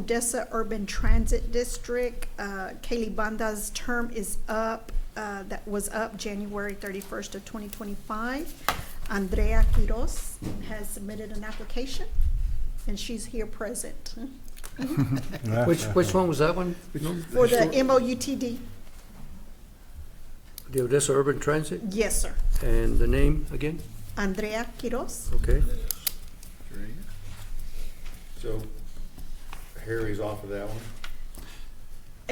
Odessa Urban Transit District. Uh, Kaylee Banda's term is up, uh, that was up January thirty-first of twenty twenty-five. Andrea Quiros has submitted an application, and she's here present Which, which one was that one? for the MOUTD. The Odessa Urban Transit? Yes, sir. And the name again? Andrea Quiros. Okay. So Harry's off of that one.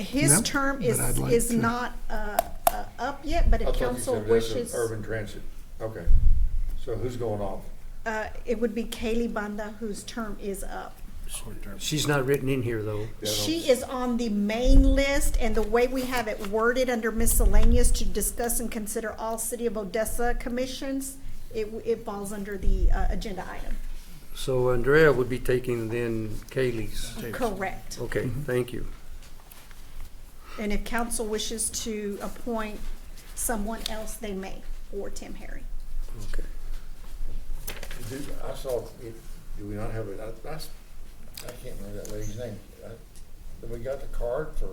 His Yep, term but is, I'd like is to- not, uh, uh, up yet, but I if thought you council said resident wishes, Urban transit, okay. So who's going off? uh, it would be Kaylee Banda whose term is up. She's not written in here, though. Yeah, I don't- She is on the main list, and the way we have it worded under miscellaneous to discuss and consider all City of Odessa commissions, it, w- it falls under the, uh, agenda item. So Andrea would be taking then Kaylee's. Correct. Okay, thank you. And if council wishes to appoint someone else, they may, or Tim Harry. Okay. Do- I saw, it- do we not have it, I, I s- I can't remember that lady's name. I- Did we got the card for,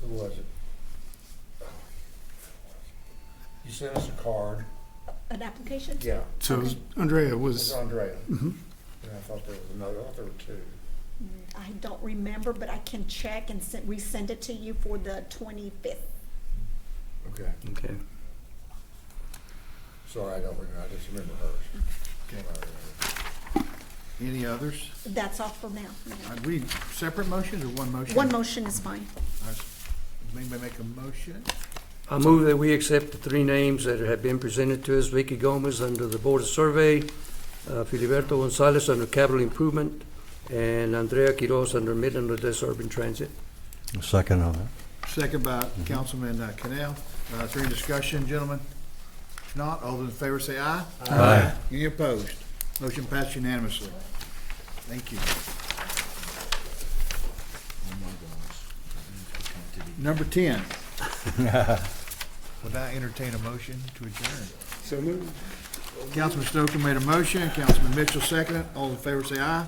who was it? You sent us a card. An application? Yeah. So Andrea It's was, Mm-hmm. Andrea. And I thought there was another, I thought there were two. I don't remember, but I can check and send, resend it to you for the twenty-fifth. Okay. Okay. Sorry, I don't remember, I just remember hers. Can't remember. Any others? That's all for now. Are we separate motions or one motion? One motion is fine. I s- Anybody make a motion? I move that we accept the three names that have been presented to us. Vicky Gomez under the Board of Survey, uh, Filiberto Gonzalez under Capital Improvement, and Andrea Quiroz under Midland Odessa Urban Transit. Second on that. Second by Councilman uh, Canal. Uh, Is there any discussion, gentlemen? If not, all those in favor say aye. Aye. Any opposed? Motion passed unanimously. Thank you. Number 10. Would I entertain a motion to adjourn? so moved. Councilman Stoker made a motion, Councilman Mitchell seconded. All in favor say aye.